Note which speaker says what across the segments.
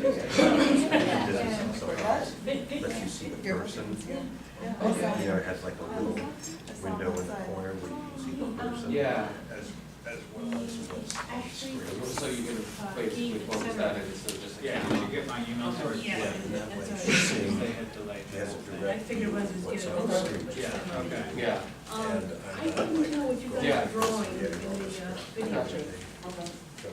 Speaker 1: Business, I'm sorry. But you see the person,
Speaker 2: Okay.
Speaker 1: the other has like a little window in the corner where you can see the person.
Speaker 3: Yeah,
Speaker 1: As, as well as what's on the screen.
Speaker 3: so you can basically focus that in, so just.
Speaker 4: Yeah, did you get my email sorry?
Speaker 5: Yeah.
Speaker 1: And that way
Speaker 5: That's
Speaker 1: she's
Speaker 5: all
Speaker 4: Since
Speaker 1: seeing
Speaker 4: They had delayed the
Speaker 1: Yes,
Speaker 4: whole thing.
Speaker 1: direct.
Speaker 5: I figured it was as
Speaker 1: What's
Speaker 5: good.
Speaker 1: on the screen.
Speaker 4: Yeah, okay.
Speaker 3: Yeah,
Speaker 5: Um,
Speaker 1: And
Speaker 5: I
Speaker 1: I'm not
Speaker 5: didn't
Speaker 1: like-
Speaker 5: know what you
Speaker 3: Yeah.
Speaker 5: guys were drawing in the uh, video.
Speaker 3: Gotcha.
Speaker 1: So,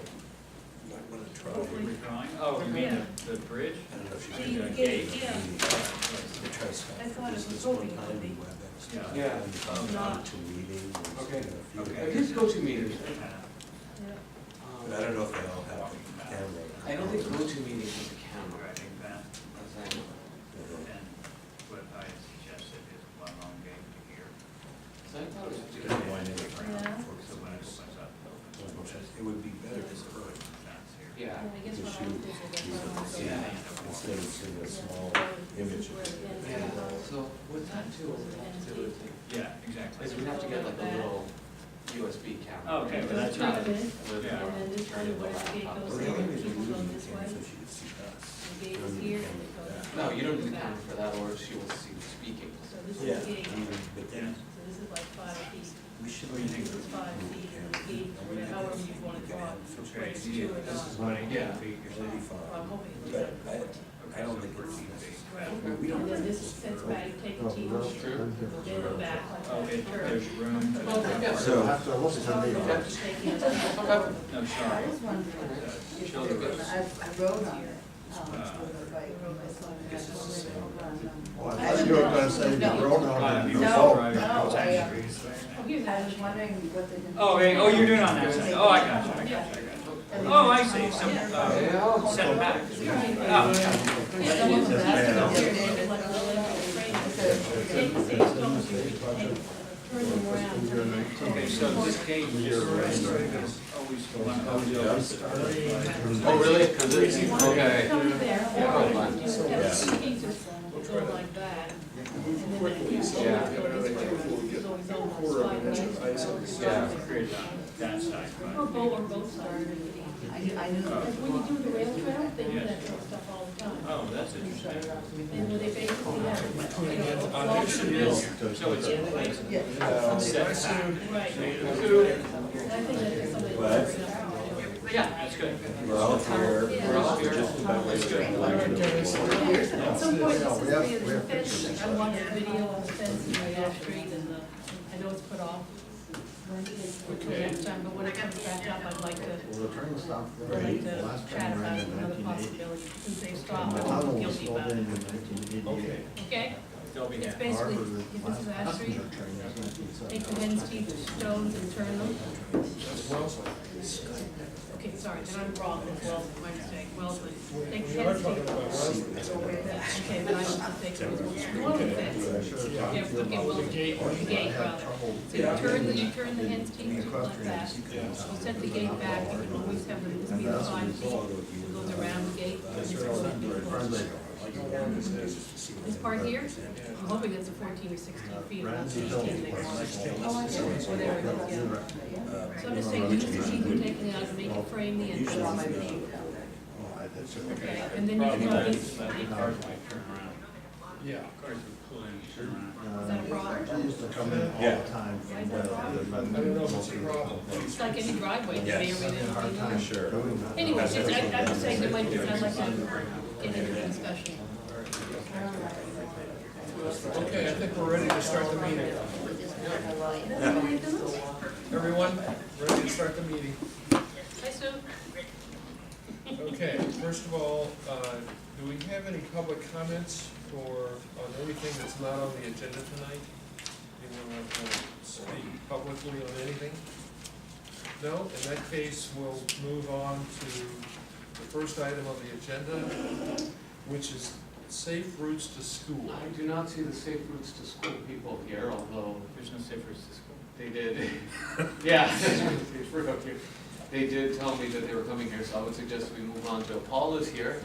Speaker 1: Might wanna try.
Speaker 5: Hopefully.
Speaker 4: Redrawing, oh, you mean the, the bridge?
Speaker 1: I don't know if
Speaker 5: So
Speaker 1: she's
Speaker 5: you
Speaker 1: gonna
Speaker 5: get it, yeah.
Speaker 1: They try to stop
Speaker 5: I
Speaker 1: the
Speaker 5: thought it was
Speaker 1: business one
Speaker 5: hoping it
Speaker 1: time
Speaker 5: would be.
Speaker 1: in WebEx.
Speaker 4: Yeah.
Speaker 3: yeah.
Speaker 1: And found out to meeting. and,
Speaker 3: Okay.
Speaker 1: you know,
Speaker 4: Okay.
Speaker 3: At least go-to meetings.
Speaker 5: Yeah.
Speaker 1: But I don't know if they all have the camera.
Speaker 3: I don't think go-to meetings is a camera.
Speaker 4: I think that,
Speaker 3: That's like-
Speaker 1: You know,
Speaker 4: and what I suggested is one long game to hear.
Speaker 3: So I thought it was just-
Speaker 4: So that it's
Speaker 5: Yeah.
Speaker 4: different, So when it opens up, it opens up.
Speaker 1: It would be better as early.
Speaker 4: That's here.
Speaker 3: Yeah,
Speaker 5: And I guess what I would do is
Speaker 4: Yeah.
Speaker 5: I
Speaker 1: Instead of seeing a small image. of it.
Speaker 3: yeah, so with that too, what we have to do is,
Speaker 4: Yeah, exactly.
Speaker 3: is we have to get like a little USB camera.
Speaker 4: Okay,
Speaker 5: would.
Speaker 4: but that's
Speaker 5: not
Speaker 4: not-
Speaker 5: good. And
Speaker 3: With
Speaker 4: Yeah.
Speaker 5: then this
Speaker 3: turn
Speaker 5: kind
Speaker 3: it
Speaker 5: of
Speaker 3: the
Speaker 5: where it
Speaker 3: laptop.
Speaker 5: goes
Speaker 1: Or
Speaker 5: there,
Speaker 1: the only
Speaker 5: and
Speaker 1: reason
Speaker 5: people
Speaker 1: we
Speaker 5: go
Speaker 1: need the
Speaker 5: this
Speaker 1: camera
Speaker 5: way.
Speaker 1: is so she could see us.
Speaker 5: The gate is here, and it goes.
Speaker 3: No, you don't need the camera for that, or she will see you speaking.
Speaker 5: So this
Speaker 1: Yeah,
Speaker 5: is the gate,
Speaker 1: I mean, but then
Speaker 5: so this is like five feet,
Speaker 1: we should.
Speaker 4: What do you think?
Speaker 5: this is five feet, and the gate, or however you want to draw it, whether
Speaker 4: Okay,
Speaker 5: it's
Speaker 4: so you-
Speaker 5: two or
Speaker 4: this is
Speaker 5: not.
Speaker 4: what I
Speaker 3: Yeah.
Speaker 4: get, figures
Speaker 5: Well,
Speaker 4: out.
Speaker 5: I'm
Speaker 1: Eighty-five.
Speaker 5: hoping it's
Speaker 1: But I,
Speaker 5: like fourteen.
Speaker 1: I don't
Speaker 4: Okay,
Speaker 1: think
Speaker 4: so
Speaker 1: it's
Speaker 4: 14 feet.
Speaker 5: Right.
Speaker 1: We don't
Speaker 5: And then
Speaker 1: have
Speaker 5: this
Speaker 1: this
Speaker 5: sets
Speaker 1: room.
Speaker 5: back, take a T,
Speaker 6: that's
Speaker 3: true.
Speaker 5: then go back
Speaker 4: Oh,
Speaker 5: like
Speaker 4: it,
Speaker 5: that. curve.
Speaker 4: there's room. to-
Speaker 5: Well, yeah.
Speaker 1: So-
Speaker 6: have to look at
Speaker 5: So
Speaker 6: me.
Speaker 3: Yeah.
Speaker 5: you
Speaker 6: right?
Speaker 5: have to take it up.
Speaker 4: No,
Speaker 7: I
Speaker 4: sorry.
Speaker 7: was wondering,
Speaker 4: The
Speaker 7: if
Speaker 3: Children
Speaker 7: there-
Speaker 3: goes.
Speaker 7: I, I wrote on it, um, with a bike, I saw it, I
Speaker 3: This is the
Speaker 7: saw it
Speaker 3: same.
Speaker 7: over on, um,
Speaker 6: Well, I thought you were gonna say you
Speaker 7: No.
Speaker 6: wrote
Speaker 4: Uh,
Speaker 6: on it.
Speaker 4: people
Speaker 7: No,
Speaker 4: drive
Speaker 7: no,
Speaker 4: across
Speaker 7: I,
Speaker 4: the
Speaker 7: uh,
Speaker 4: streets right now.
Speaker 7: I was wondering what they did.
Speaker 4: Oh, wait, oh, you're doing it on that side, oh, I got you, I got you, I got you. Oh, I see, some, uh,
Speaker 3: Yeah.
Speaker 4: setback. Oh,
Speaker 5: Yeah, the ones that I see here, they're like a little bit frame. Take the same stone, you take, turn them around, turn them around.
Speaker 4: okay, so this gate is always one of those.
Speaker 3: Oh, really? 'Cause it's- okay.
Speaker 5: Come there, or
Speaker 3: Yeah.
Speaker 5: you just have two pieces, go like that. And then it-
Speaker 3: Yeah.
Speaker 5: It's always on the slide.
Speaker 4: Created on that side,
Speaker 5: Or
Speaker 4: but
Speaker 5: both, or both sides.
Speaker 7: I knew, I knew.
Speaker 5: Because when you do the rail trail, they do that sort of stuff all the time.
Speaker 4: Oh, that's interesting.
Speaker 5: And when they basically have, you know, a
Speaker 4: Oh,
Speaker 5: block
Speaker 4: there
Speaker 5: in the
Speaker 4: should
Speaker 5: middle.
Speaker 4: be, so it's a place.
Speaker 7: Yeah.
Speaker 4: Setback.
Speaker 5: Right. And I think that's somebody.
Speaker 1: What?
Speaker 4: Yeah, that's good.
Speaker 1: We're all here.
Speaker 5: Yeah. We're all
Speaker 3: here.
Speaker 1: Just about ready to
Speaker 4: Good.
Speaker 1: go.
Speaker 5: At some point,
Speaker 6: No, we have-
Speaker 5: this is
Speaker 6: we
Speaker 5: the
Speaker 6: have
Speaker 5: fence, I watched a video of the fence in the off street and the, I know it's put off. For next time, but when it comes back up, I'd like to,
Speaker 6: Well, the train stopped
Speaker 5: I'd
Speaker 6: there
Speaker 5: like
Speaker 6: the
Speaker 5: to
Speaker 6: last
Speaker 5: chat
Speaker 6: time
Speaker 5: about
Speaker 6: around in
Speaker 5: another
Speaker 6: 1980.
Speaker 5: possibility, since they
Speaker 6: And
Speaker 5: stopped,
Speaker 6: the
Speaker 5: I
Speaker 6: tunnel
Speaker 5: won't feel
Speaker 6: was
Speaker 5: guilty
Speaker 6: filled
Speaker 5: about
Speaker 6: in in
Speaker 5: it,
Speaker 4: Okay.
Speaker 6: 1988.
Speaker 5: okay?
Speaker 4: They'll be
Speaker 5: It's
Speaker 4: happy.
Speaker 5: basically,
Speaker 6: Harvard was
Speaker 5: if
Speaker 6: my
Speaker 5: this is Ash Street,
Speaker 6: passenger train, that's 1970.
Speaker 5: Take the Wednesday stones and turn them. Okay, sorry, then I'm wrong, it's Wellesley, my mistake, Wellesley. Take the Wednesday. Okay, then I should take the Wellesley fence. Yeah, okay, Wellesley, the gate rather. So you turn, the- you turn the hen's teeth like that. You set the gate back, you can always have the, this be the five feet, it goes around the gate. This part here, I'm hoping it's a fourteen or sixteen feet, or not sixteen, they call it.
Speaker 7: Oh, I did.
Speaker 5: Whatever it is, yeah. So I'm just saying, use the sheet and take it out, make it frame the
Speaker 7: Put on my
Speaker 5: entrance.
Speaker 7: name down there.
Speaker 5: Okay, and then you
Speaker 4: Problem
Speaker 5: can
Speaker 4: is,
Speaker 5: always, is
Speaker 4: that the cars might turn around.
Speaker 6: Yeah.
Speaker 4: Cars would pull in, and turn around.
Speaker 5: that a problem?
Speaker 6: They used to come in all the time.
Speaker 5: Is that a problem?
Speaker 6: I don't know if it's a problem.
Speaker 5: It's like any driveway, you may or may not be known.
Speaker 6: Sure.
Speaker 5: Anyway, just, I, I'm just saying, there might be, I'd like to get into the discussion.
Speaker 8: Okay, I think we're ready to start the meeting. Everyone, ready to start the meeting?
Speaker 5: Hi, Sue.
Speaker 8: Okay, first of all, uh, do we have any public comments for, on anything that's not on the agenda tonight? Anyone want to speak publicly on anything? No? In that case, we'll move on to the first item on the agenda, which is safe routes to school.
Speaker 3: I do not see the safe routes to school people here, although
Speaker 4: There's no safe routes to school.
Speaker 3: They did, yeah, they did tell me that they were coming here, so I would suggest we move on to Paula's here.